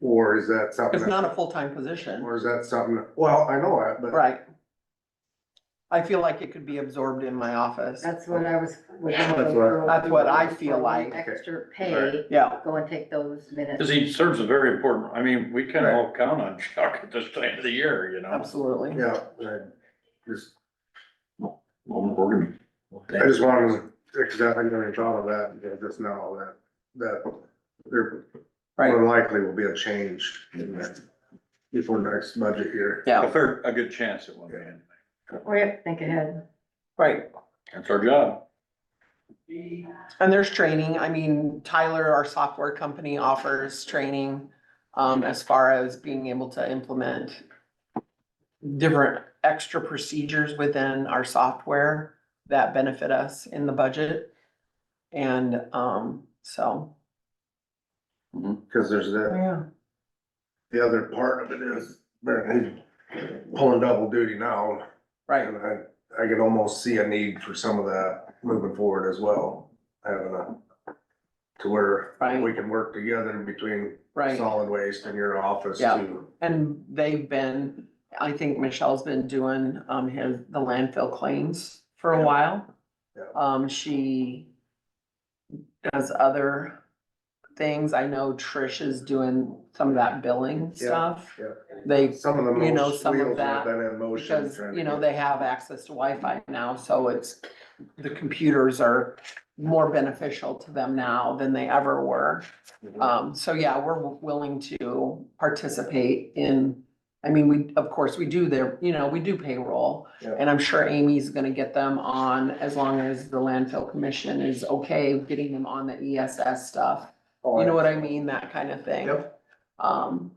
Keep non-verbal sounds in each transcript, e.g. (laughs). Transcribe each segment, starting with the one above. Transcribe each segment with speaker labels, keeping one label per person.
Speaker 1: Or is that something?
Speaker 2: It's not a full-time position,
Speaker 1: Or is that something, well, I know that, but
Speaker 2: right? I feel like it could be absorbed in my office.
Speaker 3: That's what I was. was
Speaker 1: That's
Speaker 3: wondering
Speaker 1: what-
Speaker 3: for-
Speaker 2: That's what I
Speaker 3: for
Speaker 2: feel
Speaker 3: the
Speaker 2: like.
Speaker 3: Extra
Speaker 1: Alright.
Speaker 3: pay,
Speaker 2: Yeah,
Speaker 3: go and take those minutes.
Speaker 4: Cause he serves a very important, I mean, we can all count on (laughs) Chuck at this time of the year, you know?
Speaker 2: absolutely.
Speaker 1: yeah, I just,
Speaker 4: Well, we're gonna-
Speaker 1: I just wanted, to because I never even thought of that, you know, just now that, that there
Speaker 2: Right,
Speaker 1: more likely will be a change in that before next budget year.
Speaker 4: A
Speaker 2: yeah,
Speaker 4: fair, a good chance at one man.
Speaker 3: We have to think ahead.
Speaker 2: right.
Speaker 4: That's our job.
Speaker 2: And there's training. I mean, Tyler, our software company offers training um, as far as being able to implement different extra procedures within our software that benefit us in the budget. And, um, so,
Speaker 1: Cause there's that,
Speaker 2: yeah,
Speaker 1: the other part of it is, man, he's pulling double duty now.
Speaker 2: right,
Speaker 1: And I, I could almost see a need for some of that moving forward as well, having a, to where
Speaker 2: Right.
Speaker 1: we can work together between
Speaker 2: right.
Speaker 1: solid waste in your office
Speaker 2: Yeah.
Speaker 1: too.
Speaker 2: And they've been, I think Michelle's been doing, um, his, the landfill claims for a
Speaker 1: Yeah.
Speaker 2: while.
Speaker 1: Yeah.
Speaker 2: Um, she does other things. I know Trish is doing some of that billing
Speaker 1: Yeah,
Speaker 2: stuff.
Speaker 1: yeah.
Speaker 2: They,
Speaker 1: Some of the
Speaker 2: You know,
Speaker 1: most
Speaker 2: some of
Speaker 1: wheels
Speaker 2: that,
Speaker 1: have been in motion.
Speaker 2: because,
Speaker 1: trying to
Speaker 2: you know,
Speaker 1: get-
Speaker 2: they have access to Wi-Fi now, so it's, the computers are more beneficial to them now than they ever were. Um, so yeah, we're willing to participate in, I mean, we, of course, we do their, you know, we do payroll.
Speaker 1: Yeah.
Speaker 2: And I'm sure Amy's gonna get them on as long as the landfill commission is okay with getting them on the ESS stuff.
Speaker 1: Oh,
Speaker 2: You know what I mean? That kind of thing.
Speaker 1: Yep.
Speaker 2: Um.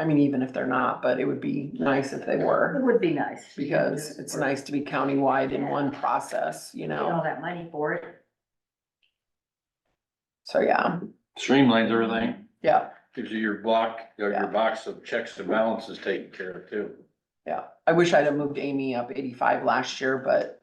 Speaker 2: I mean, even if they're not, but it would be nice if they
Speaker 3: It
Speaker 2: were,
Speaker 3: would be nice.
Speaker 2: because it's nice to be countywide in one process, you
Speaker 3: Get
Speaker 2: know?
Speaker 3: all that money for it.
Speaker 2: So yeah,
Speaker 4: Streamlines everything,
Speaker 2: yeah.
Speaker 4: gives you your block, your
Speaker 2: Yeah.
Speaker 4: your box of checks and balances taken care of too.
Speaker 2: Yeah, I wish I'd have moved Amy up eighty-five last year, but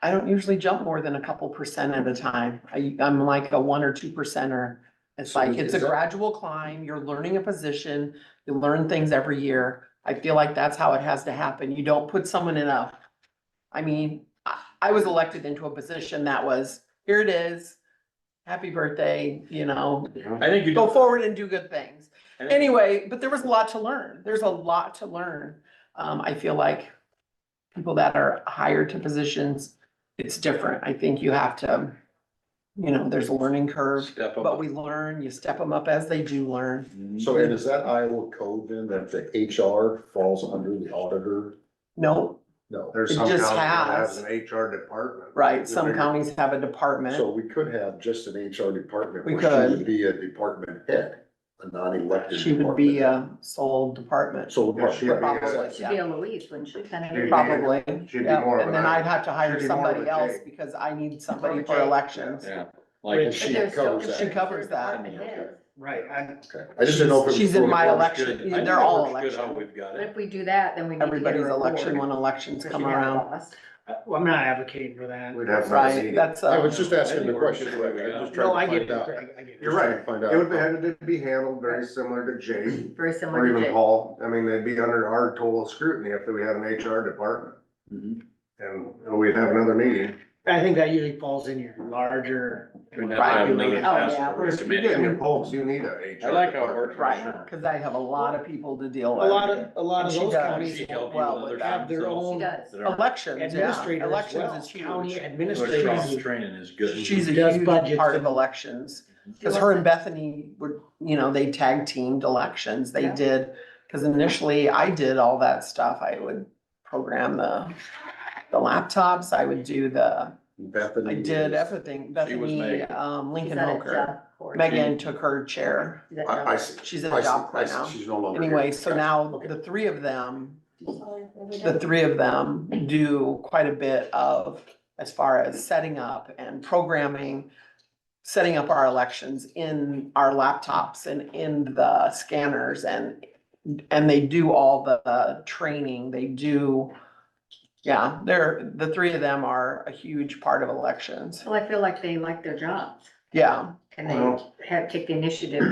Speaker 2: I- I don't usually jump more than a couple percent at a time. I, I'm like a one or two percenter. It's
Speaker 1: So
Speaker 2: like,
Speaker 1: is-
Speaker 2: it's
Speaker 1: is
Speaker 2: a
Speaker 1: that-
Speaker 2: gradual climb. You're learning a position. You learn things every year. I feel like that's how it has to happen. You don't put someone in a, I mean, I, I was elected into a position that was, here it is. Happy birthday, you know,
Speaker 4: I think you.
Speaker 2: go
Speaker 4: do-
Speaker 2: forward and do good things
Speaker 4: I think-
Speaker 2: anyway, but there was a lot to learn. There's a lot to learn. Um, I feel like people that are hired to positions, it's different. I think you have to, you know, there's a learning curve,
Speaker 4: Step
Speaker 2: but
Speaker 4: up.
Speaker 2: we Mm-hmm. learn, you step them up as they do learn.
Speaker 5: So and is that Iowa code then that the HR falls under the auditor?
Speaker 2: No,
Speaker 5: No.
Speaker 1: There's
Speaker 2: It
Speaker 1: some
Speaker 2: just
Speaker 1: county that has
Speaker 2: has.
Speaker 1: an HR department.
Speaker 2: right, some
Speaker 1: They're-
Speaker 2: counties have a
Speaker 5: So
Speaker 2: department,
Speaker 5: we could have just an HR department.
Speaker 2: We
Speaker 5: where
Speaker 2: could.
Speaker 5: She would be a department head, a non-elected.
Speaker 2: she would be uh,
Speaker 5: department
Speaker 2: a sole
Speaker 5: head.
Speaker 2: department,
Speaker 5: So.
Speaker 1: Yeah, she'd be-
Speaker 2: probably,
Speaker 3: She'd be
Speaker 2: yeah,
Speaker 3: a Louise, wouldn't she? Kind of.
Speaker 1: She'd be-
Speaker 2: probably.
Speaker 1: she'd be
Speaker 2: yeah.
Speaker 1: more of
Speaker 2: And
Speaker 1: an
Speaker 2: then
Speaker 1: I-
Speaker 2: I'd have to hire
Speaker 1: she'd be more of
Speaker 2: somebody
Speaker 1: a
Speaker 2: else
Speaker 1: Jake.
Speaker 2: because I need somebody for
Speaker 3: Jake,
Speaker 2: elections.
Speaker 4: Yeah,
Speaker 5: But
Speaker 4: like,
Speaker 5: she covers
Speaker 2: She
Speaker 5: that.
Speaker 2: covers that.
Speaker 1: Right, I,
Speaker 5: Okay. I just didn't know. if it was
Speaker 2: She's in my
Speaker 5: fully-
Speaker 2: elec- election,
Speaker 4: Good. I think
Speaker 2: they're
Speaker 4: it
Speaker 2: all
Speaker 4: works good how
Speaker 2: election.
Speaker 4: We've got
Speaker 3: But
Speaker 4: it.
Speaker 3: if we do that, then we need to get
Speaker 2: Everybody's
Speaker 3: her aboard.
Speaker 2: election when elections
Speaker 3: Because
Speaker 2: come
Speaker 3: she'd have
Speaker 2: around.
Speaker 3: a boss.
Speaker 6: Uh, Well, I'm not advocating for that.
Speaker 1: we'd have. some
Speaker 2: Right,
Speaker 1: seating.
Speaker 2: that's,
Speaker 5: I
Speaker 2: uh,
Speaker 5: was just asking the question. Rick. I'm just
Speaker 6: No, I
Speaker 5: trying to
Speaker 6: get it,
Speaker 5: find out.
Speaker 6: Greg, I get it.
Speaker 1: You're right.
Speaker 5: Just trying to
Speaker 1: It would
Speaker 5: find out.
Speaker 1: have to be handled very similar to Jake
Speaker 3: Very
Speaker 1: or
Speaker 3: similar to
Speaker 1: even
Speaker 3: Jake.
Speaker 1: Paul. I mean, they'd be under our total scrutiny if we had an HR department. And we'd have another meeting.
Speaker 6: I think that usually falls in your larger.
Speaker 4: We'd have to have another
Speaker 3: Oh, yeah.
Speaker 4: task force
Speaker 1: If you
Speaker 4: committee.
Speaker 1: get in polls, you need a HR.
Speaker 4: I like how it works.
Speaker 1: department.
Speaker 2: right, cause I have a lot of people to
Speaker 6: A
Speaker 2: deal with.
Speaker 6: lot of, a lot
Speaker 2: And
Speaker 6: of
Speaker 2: she
Speaker 6: those
Speaker 2: does.
Speaker 6: counties
Speaker 4: She
Speaker 6: won't
Speaker 4: helped
Speaker 2: well
Speaker 4: you with
Speaker 2: with
Speaker 4: other
Speaker 6: have their
Speaker 4: things
Speaker 3: She
Speaker 6: own
Speaker 3: does.
Speaker 4: that are-
Speaker 2: Elections, yeah,
Speaker 6: administrators as well.
Speaker 2: elections is
Speaker 6: County
Speaker 2: huge.
Speaker 4: Their cross
Speaker 6: administrators.
Speaker 4: Training is good.
Speaker 2: She's a
Speaker 6: Does
Speaker 2: huge
Speaker 6: budgets
Speaker 2: part of
Speaker 6: and-
Speaker 2: elections,
Speaker 3: She
Speaker 2: cause her and
Speaker 3: wasn't-
Speaker 2: Bethany were, you know, they tag teamed elections, they
Speaker 3: Yeah.
Speaker 2: did. Cause initially I did all that stuff, I would program the, the laptops, I would do the, I
Speaker 5: Bethany.
Speaker 2: did
Speaker 5: is-
Speaker 2: everything,
Speaker 4: She was
Speaker 2: Bethany,
Speaker 4: Megan.
Speaker 2: um,
Speaker 3: She's
Speaker 2: Lincoln
Speaker 3: on a
Speaker 2: Hoker.
Speaker 3: job board.
Speaker 2: Megan took her chair,
Speaker 3: She's on a job
Speaker 5: I, I see.
Speaker 2: she's at
Speaker 5: I
Speaker 2: a
Speaker 5: see.
Speaker 2: job
Speaker 5: I
Speaker 2: right
Speaker 5: see.
Speaker 2: now.
Speaker 5: She's no longer. here.
Speaker 2: Anyway, so
Speaker 5: Gotcha.
Speaker 2: now
Speaker 5: Okay.
Speaker 2: the three of them
Speaker 3: board.
Speaker 2: the three of them do quite a bit of, as far as setting up and programming, setting up our elections in our laptops and in the scanners and, and they do all the uh, training, they do, yeah, they're, the three of them are a huge part of elections.
Speaker 3: Well, I feel like they like their jobs.
Speaker 2: Yeah,
Speaker 3: and they have, take the initiative